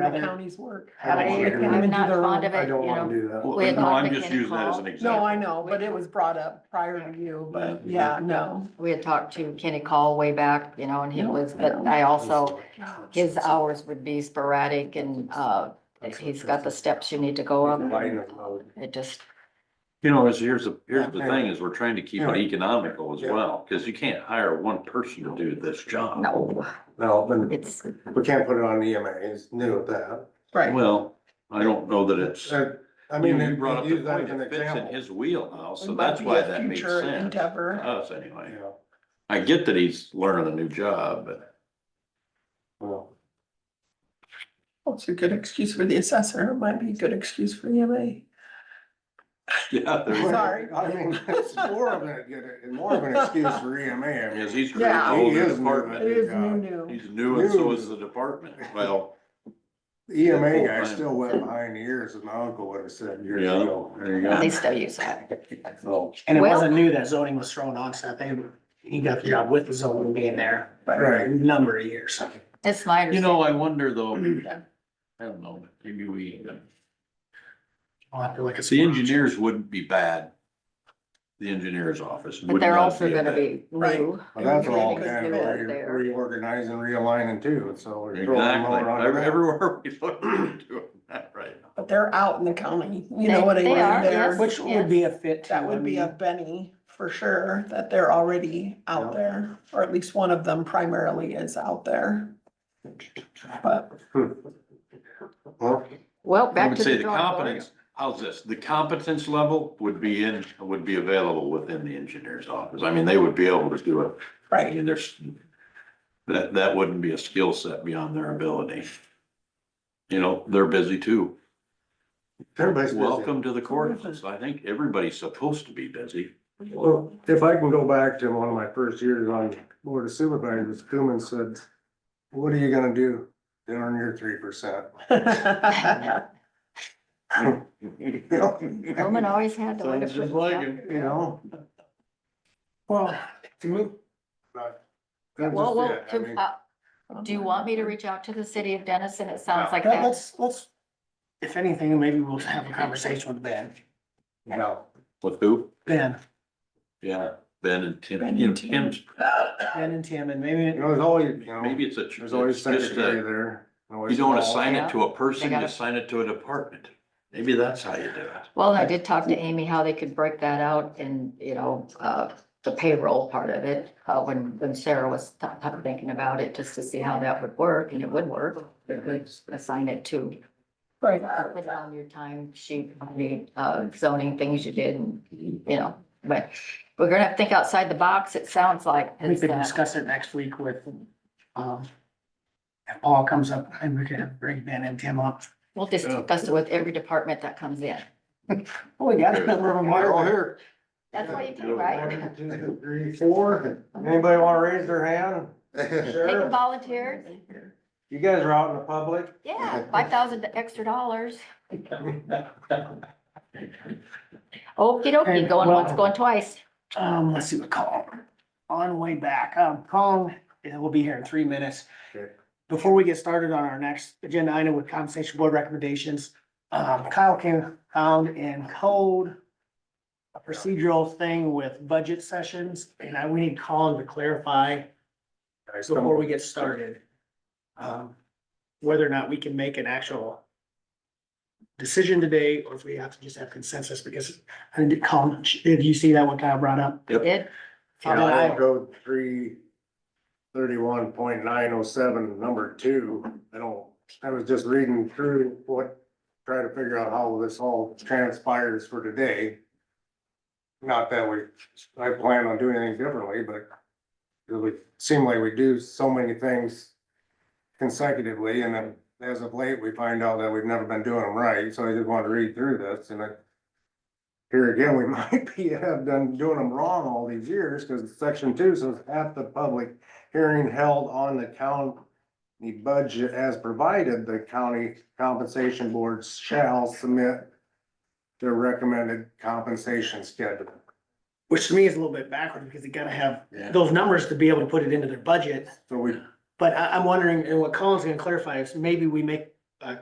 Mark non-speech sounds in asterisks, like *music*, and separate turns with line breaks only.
how
Another-
counties work.
I don't wanna do
Women
that.
do
not
their own-
fond of it.
I don't
you
wanna
know.
do that.
We had
No, I'm
Norfolk
just
and
using that as an
Hall.
example.
No, I know, but it was brought up prior to you, but
Yeah.
yeah, Mm-hmm. no.
We had talked to Kenny Call way back, you know, and he
Yeah,
was,
I
but
know.
I also, his hours would be sporadic and, uh, he's got the steps you need to go up.
Line of load.
It just,
You know, it's, here's the, here's the thing, is we're trying to keep it economical as
Yeah.
well, because you can't hire one person to do this job.
no,
No, then
it's,
we can't put it on EMA, it's new at that.
Right,
Well, I don't know that it's,
Uh, I mean,
you
they
brought up
they
the
use that
point,
as an
it fits in
example.
his wheelhouse, so
It might
that's
be
why
a
that makes
future
sense. Uh,
endeavor.
to Us anyway.
Yeah,
I get that he's learning a new job, but *laughs*
well,
Well, it's a good excuse for the assessor, it might be a good excuse for the MA.
yeah, there
Sorry.
*laughs* I mean, it's more of a, more of an excuse for EMA. I
*laughs*
mean,
is, he's creating a
Yeah.
whole
He
new
is new.
department.
It is new,
God.
new.
He's new and so is the department. Well,
the EMA E guy still went behind the ears, as my uncle would have said years
Yeah,
ago.
there you go.
they still use that.
*laughs* So,
And it
Well-
wasn't new that zoning was thrown on, so they, he got the job with the zoning being there for
right,
a number of years.
It's my
you
understanding.
know, I
*clears throat*
wonder though, I don't know, maybe we, uh,
I'll have to look at some
the
more.
engineers wouldn't be bad. The engineer's office.
But
would
they're
not
also
a
gonna
bad-
be
Right.
new.
but that's all
Because
kind of
they're
re-
there.
reorganizing, realigning too, so. we're throwing more
Exactly,
on
Every-
that.
everywhere we look, we're doing that right now.
But they're out in the county, you know
They-
what I
they
mean?
are,
They're-
yes.
Which would be a fit. too,
That
I
would be a
mean,
Benny for sure, that they're already out
Yeah.
there, or at least one of them primarily is out there. But
Well,
Well,
I
back
would
to
say
the
the
drawing board.
competence, how's this, the competence level would be in, would be available within the engineer's office, I mean, they would be able to do it, I
Right,
mean, there's. That, that wouldn't be a skill set beyond their ability. You know, they're busy too,
everybody's busy.
welcome to the courthouse, I think everybody's supposed to be busy.
Well, if I can go back to one of my first years on board of supervisors, Cooman said, what are you gonna do to earn your three percent?
*laughs* Roman always had the way to
Sounds
put
just
it
like
down.
him.
*laughs* You know?
Well,
to me, but that's
Well,
just
well,
it. I
to,
mean,
uh, do you want me to reach out to the city of Dennison? It sounds like
yeah,
that.
let's, let's, if anything, maybe we'll have a conversation with Ben.
No,
With who?
Ben,
Yeah, Ben
Ben
and Tim,
and
you know,
Tim.
Tim's,
Ben and Tim and maybe.
you know, there's always, you know,
maybe it's a.
there's always
it's just a-
secretary there.
You don't
want
assign it to a person, you
gotta-
assign it to a department. Maybe that's how you do it.
Well, I did talk to Amy how they could break that out in, you know, uh, the payroll part of it, uh, when, when Sarah was t- t- thinking about it, just to see how that would work, and it would work. They could assign it to, uh,
right.
put it on your time sheet, on the, uh, zoning things you did, and, you know, but we're gonna have to think outside the box, it sounds like.
We
'cause,
could
uh,
discuss it next week with, um, if Paul comes up and we could bring Ben and Tim up.
We'll just discuss it with every department that comes in.
Well, Oh, we got a number of them.
They're all here.
That's what you do, right?
One, two, three, four. Anybody wanna raise their hand?
Taking
Sure.
volunteers,
You guys are out in the public.
yeah, five thousand extra
*laughs*
dollars. Okey dokey,
And,
going
well-
once, going twice.
Um, let's see what Colin, on the way back, um, Colin will be here in three minutes.
Okay.
Before we get started on our next agenda item with compensation board recommendations, um, Kyle came, found in code a procedural thing with budget sessions, and I, we need Colin to clarify before we get started. Um, whether or not we can make an actual decision today, or if we have to just have consensus, because I didn't call, did you see that one Kyle brought up?
Yep.
Did,
County Code three thirty-one point nine oh seven, number two. I don't, I was just reading through what, trying to figure out how this all transpires for today. Not that we, I plan on doing anything differently, but it would seem like we do so many things consecutively, and then as of late, we find out that we've never been doing them right, so I just want to read through this, and I here again, we *laughs* might be, have done doing them wrong all these years, because section two says at the public hearing held on the county budget as provided, the county compensation board shall submit their recommended compensation schedule.
Which to me is a little bit backward because they gotta have
Yeah.
those numbers to be able to put it into their budget.
So we,
But I, I'm wondering, and what Colin's gonna clarify is maybe we make